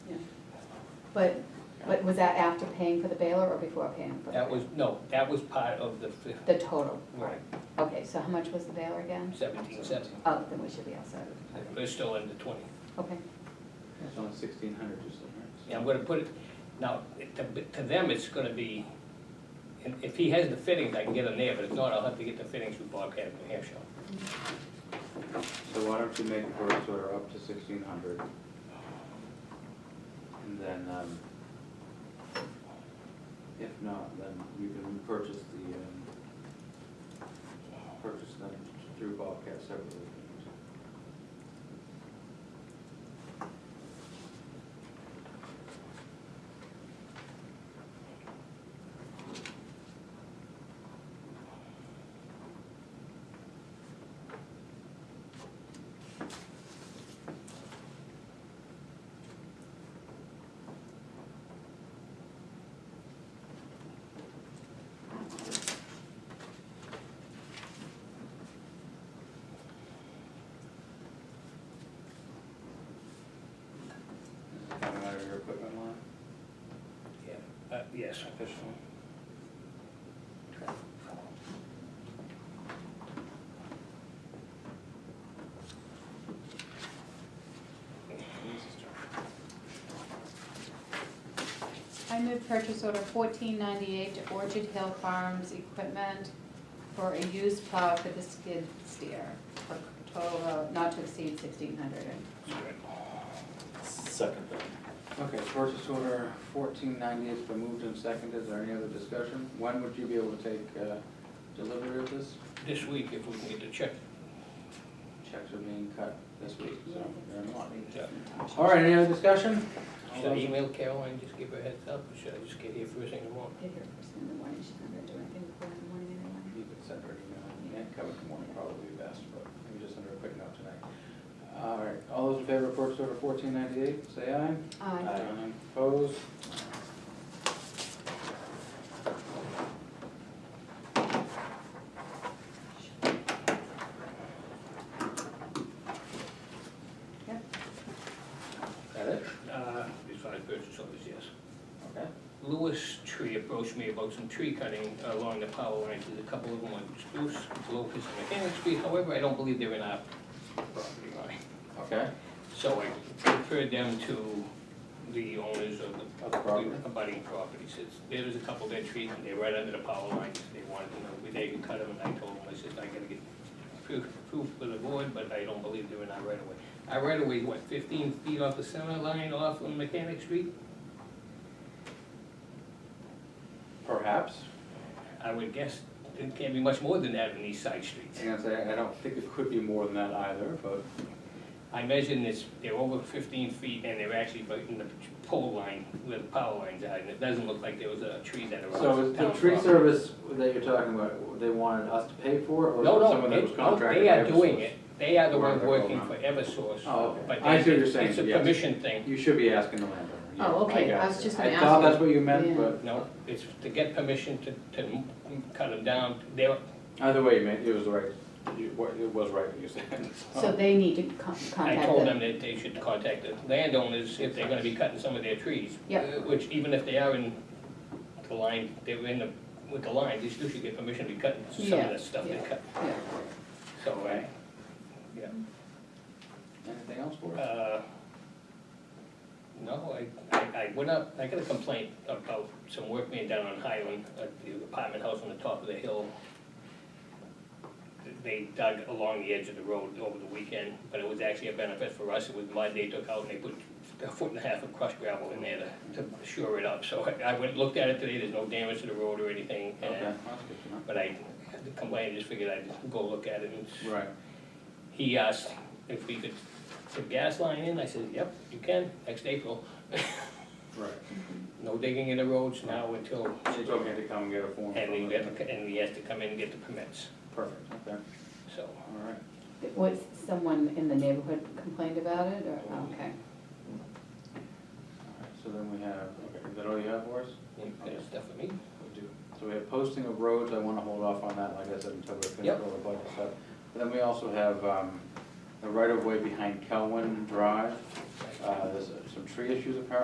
But, but was that after paying for the baler or before paying for the? That was, baler? no, that was part of the fif- The total, right, okay, so how much was the baler again? seventeen seventy. Oh, then we should be outside, We're still in the twenty. okay. It's only sixteen hundred or something. Yeah, I'm gonna put it, now, it- to, to them, it's gonna be, and if he has the fittings, I can get them there, but if not, I'll have to get the fittings from Bobcat in New Hampshire. So why don't you make the purchase order up to sixteen hundred? And then, um, if not, then you can purchase the, um, purchase them through Bobcat separately. Coming out of your equipment line, Yeah, uh, yes. officially. I move purchase order fourteen ninety-eight to Orchard Hill Farms Equipment for a used plow for the skid steer for total of not to exceed sixteen hundred. Second then. Okay, purchase order fourteen ninety has been moved and seconded. Is there any other discussion? When would you be able to take, uh, delivery of this? This week, if we can get the check, Checks are being cut this week, so they're not. uh, All right, any other discussion? All should I those- email Caroline, just give her a heads up, or should I just get here first thing in the morning? Get here first thing in the morning, she's not gonna do anything before in the morning anyway. You could send her an email, and cover the morning probably be best, but maybe just send her a quick note tonight. All right, all those in favor of purchase order fourteen ninety-eight, say aye. Aye. Opposed? Yep. That it? Uh, as far as purchase orders, yes. Okay. Lewis Tree approached me about some tree cutting along the power lines, there's a couple of them on Spruce, Locust, and Mechanic Street, however, I don't believe they're in our property line. Okay. So I referred them to the owners of the. Of the property. Abutting properties, it's, there was a couple dead trees, and they're right under the power lines, they wanted to know, if they could cut them, and I told them, I said, I gotta get proof, proof for the board, but I don't believe they're in our right of way. Our right of way, what, fifteen feet off the center line off of Mechanic Street? Perhaps. I would guess it can't be much more than that in these side streets. I'm gonna say, I don't think it could be more than that either, but I measured this, they're over fifteen feet and they're actually right in the pole line where the power lines are, and it doesn't look like there was a tree that arose. So is the tree service that you're talking about, they wanted us to pay for, or No, someone no, that was they, no, contracted? they by are Eversource? doing it, they are the Or ones they're working going for on. Eversource. Oh, okay. But I see what they- you're saying, It's a yes. permission thing, You should be asking the landowner. yeah, Oh, okay, I got was you. just gonna I thought ask that's you. what you meant, Yeah. but no, it's to get permission to, to m- cut them down, they're, either way, you meant, it was right, You- what- it was right what you said. So they need to con- I contact told them. them that they should contact the landowners if they're gonna be cutting some of their trees. Yep. uh, Which even if they are in the line, they're in the, with the line, they still should get permission to be cutting some Yeah, of the stuff they yeah. cut. Yeah. So, uh, yeah, Anything else for us? uh, no, I, I, I went up, I got a complaint about some work being done on Highland, uh, the apartment house on the top of the hill. They dug along the edge of the road over the weekend, but it was actually a benefit for us, it was mud they took out and they put a foot and a half of crushed gravel in there to, to shore it up, so I, I went, looked at it today, there's no damage to the road or anything, Okay, and, that's good to but I had the complaint, I just figured I'd go look at it and know. Right. he asked if we could put gas line in, I said, yep, you can, next April. Right. No digging in the roads now until, She told me to come and get a form. and from we them. have to, and we have to come in and get the permits, Perfect, okay, so. all right. Was someone in the neighborhood complained about it, or, oh, okay. All right, So then we have, okay, is that all you have for us? You got stuff for me? We do. So we have posting of roads, I wanna hold off on that, like I said, until we finish Yep. all the budget stuff. And then we also have, um, the right-of-way behind Kelwin Drive, uh, there's some tree issues apparently